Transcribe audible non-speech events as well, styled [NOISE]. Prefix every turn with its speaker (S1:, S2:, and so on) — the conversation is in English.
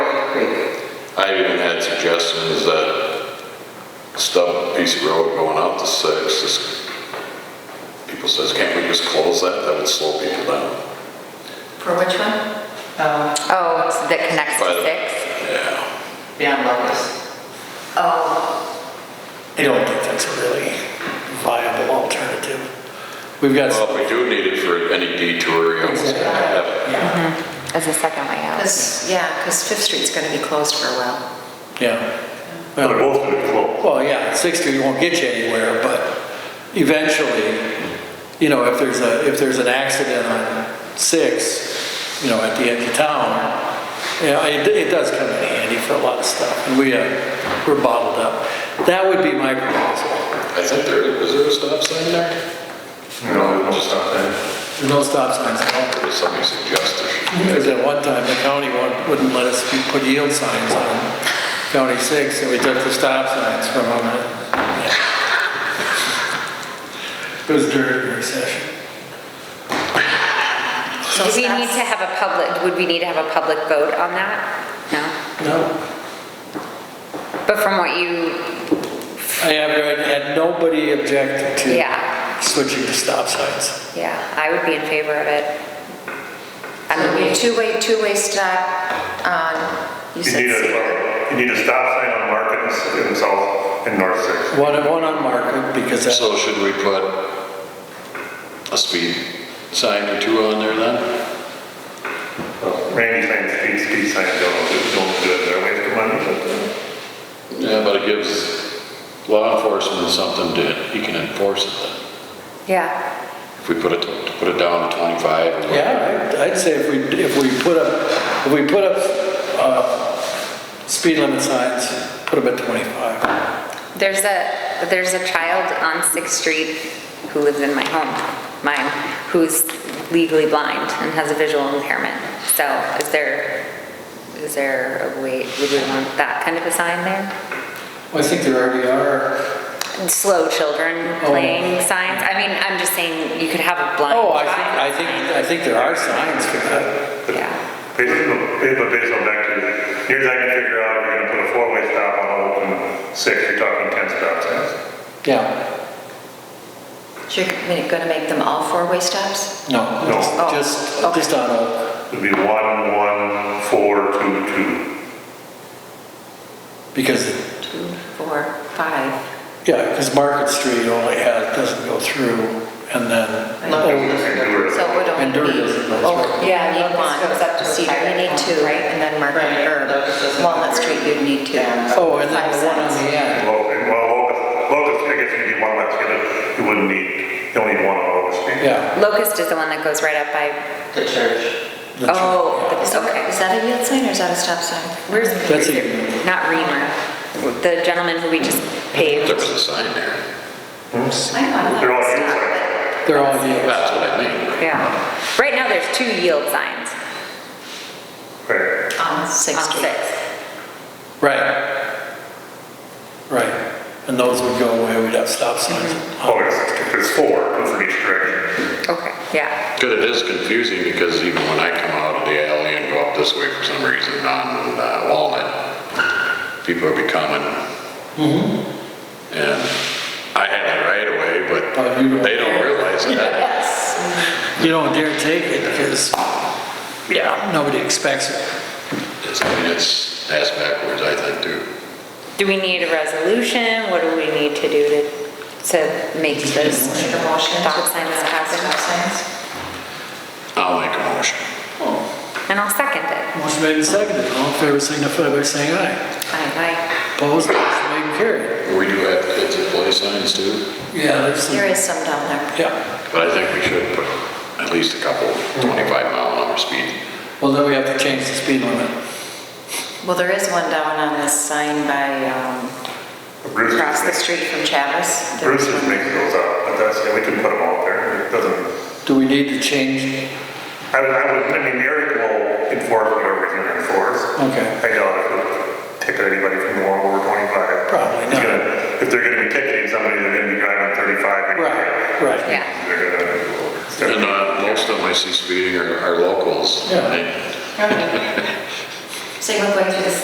S1: Creek.
S2: I even had suggestions that stub piece of road going out to six, this, people says, can't we just close that? That would slow people down.
S3: For which one?
S1: Um,
S4: Oh, it's that connects
S2: By
S4: to
S2: the-
S4: six?
S2: Yeah,
S1: Beyond Locust.
S3: Oh,
S5: I don't think that's a really viable alternative. We've got,
S2: well, if we do need it for any detour, you almost gotta have it.
S5: yeah,
S4: As a second way out.
S3: because, yeah, because Fifth Street's going to be closed for a while.
S5: yeah. Well,
S6: both of them close.
S5: well, yeah, six Street won't get you anywhere, but eventually, you know, if there's a, if there's an accident on six, you know, at the end of town, yeah, it, it does come in handy for a lot of stuff, and we, uh, we're bottled up. That would be my proposal.
S2: I think there, is there a stop sign there?
S6: No, no stop sign.
S5: There's no stop signs at all.
S2: Or did somebody suggest there?
S5: Because at one time, the county wouldn't- wouldn't let us be- put yield signs on County 6, and we took the stop signs from them. [LAUGHS] It was during the recession.
S4: Do we need to have a public, would we need to have a public vote on that? No?
S5: No,
S4: But from what you,
S5: I have, read- had nobody objected to
S4: yeah,
S5: switching to stop signs.
S4: yeah, I would be in favor of it. I
S3: It'll be a
S4: mean,
S3: two-way, two-way stop on, um, you
S6: You need
S3: said,
S6: a, you need a stop sign on Market and and South and North Sixth.
S5: One, one on Market, because that's
S2: So should we put a speed sign or two on there then?
S6: Randy signs, speed, speed sign, don't, do- don't do it, they're wasting money, but
S2: Yeah, but it gives law enforcement something to, he can enforce it then.
S4: yeah,
S2: If we put it, put it down to 25 or whatever.
S5: Yeah, I'd- I'd say if we, if we put up, if we put up, uh, speed limit signs, put them at 25.
S4: there's a, there's a child on Sixth Street who lives in my home, mine, who's legally blind and has a visual impairment. So is there, is there a way, would we want that kind of a sign there?
S5: Well, I think there already are.
S4: slow children
S5: Oh.
S4: playing signs. I mean, I'm just saying you could have a blind.
S5: Oh, I think, I
S4: child.
S5: think, I think there are signs for that.
S4: Yeah,
S6: basically, but based on back to, here's how I can figure out if you're gonna put a four-way stop on Oakland Sixth, you're talking ten stop signs.
S5: Yeah,
S3: you're going to make them all four-way stops?
S5: no,
S6: No.
S5: just-
S3: Oh,
S5: just,
S3: okay.
S5: just on Oak,
S6: It'd be one, one, four, two, two.
S5: because,
S3: Two, four, five.
S5: yeah, because Market Street only has, doesn't go through, and then,
S3: No.
S6: And do it.
S3: So it would
S5: And
S3: only
S5: Durga
S3: be,
S5: doesn't go
S3: oh,
S5: through.
S3: you
S4: Yeah,
S3: need one,
S4: Locust goes up to
S3: Cedar, you
S4: Cedar.
S3: need two,
S4: Right.
S3: and then Market,
S1: Right, Locust
S3: or
S1: doesn't-
S3: Walnut Street, you'd need two.
S5: oh, and then
S3: Five
S5: the one on
S3: signs.
S5: the end.
S6: Well, and- well, Locust, Locust, I guess you need one, that's gonna, you wouldn't need, you only need one on Locust Street.
S5: Yeah.
S4: Locust is the one that goes right up by,
S1: The church.
S5: the tr-
S4: oh,
S3: Is
S4: it's
S3: that-
S4: okay.
S3: is that a yield sign or is that a stop sign?
S4: Where's,
S5: That's a-
S4: not Reamer, the gentleman who we just
S2: There
S4: paved.
S2: was a sign there.
S3: I know, I
S6: They're all
S3: thought it was stop,
S6: yield signs.
S3: but-
S5: They're all yield.
S2: That's what I mean.
S4: Yeah. Right now, there's two yield signs
S6: Right.
S3: On
S4: on
S3: Sixth Street.
S4: Sixth.
S5: Right. Right. And those would go away, we'd have stop signs.
S6: Oh, it's, it's four, two for each direction.
S4: Okay, yeah.
S2: Because it is confusing because even when I come out of the alley and go up this way for some reason on uh, Walnut, people would be coming. And I had it right away,
S3: Mm-hmm.
S5: Oh, you
S2: but
S5: don't-
S2: they don't realize that.
S5: You don't dare take it, because, yeah, nobody expects it.
S2: It's, I mean, it's ass backwards, I think, too.
S4: Do we need a resolution? What do we need to do to, to make those
S3: Make a motion to
S4: stop signs
S3: pass stop
S4: happen?
S3: signs.
S2: I'll make a motion.
S4: And I'll second it.
S5: Motion made and seconded, all in favor signify by saying aye.
S4: Aye.
S5: Opposed, motion made and carried.
S2: We do have kids that play signs, too,
S5: Yeah, there's some,
S3: There is some down there.
S5: yeah.
S2: but I think we should put at least a couple 25 mile an hour speed
S5: Well, then we have to change the speed limit.
S3: Well, there is one down on this sign by, um,
S6: Bruce
S3: across the
S6: is-
S3: street from Chavis. There
S6: Bruce
S3: is
S6: is
S3: one
S6: making
S3: there.
S6: those up, but that's, yeah, we can put them all there, it doesn't,
S5: Do we need to change?
S6: I, I would, I mean, Eric will enforce whatever he can enforce.
S5: Okay.
S6: I doubt if he'll ticket anybody from going over twenty-five.
S5: Probably
S6: He's
S5: not.
S6: gonna- If they're gonna be ticketing somebody, they're gonna be driving thirty-five. anyway.
S5: Right, right.
S4: Yeah.
S6: They're
S2: And
S6: gonna.
S2: uh, most of them I see speeding are are locals.
S5: Yeah.
S2: They-
S3: Say, look, like, through the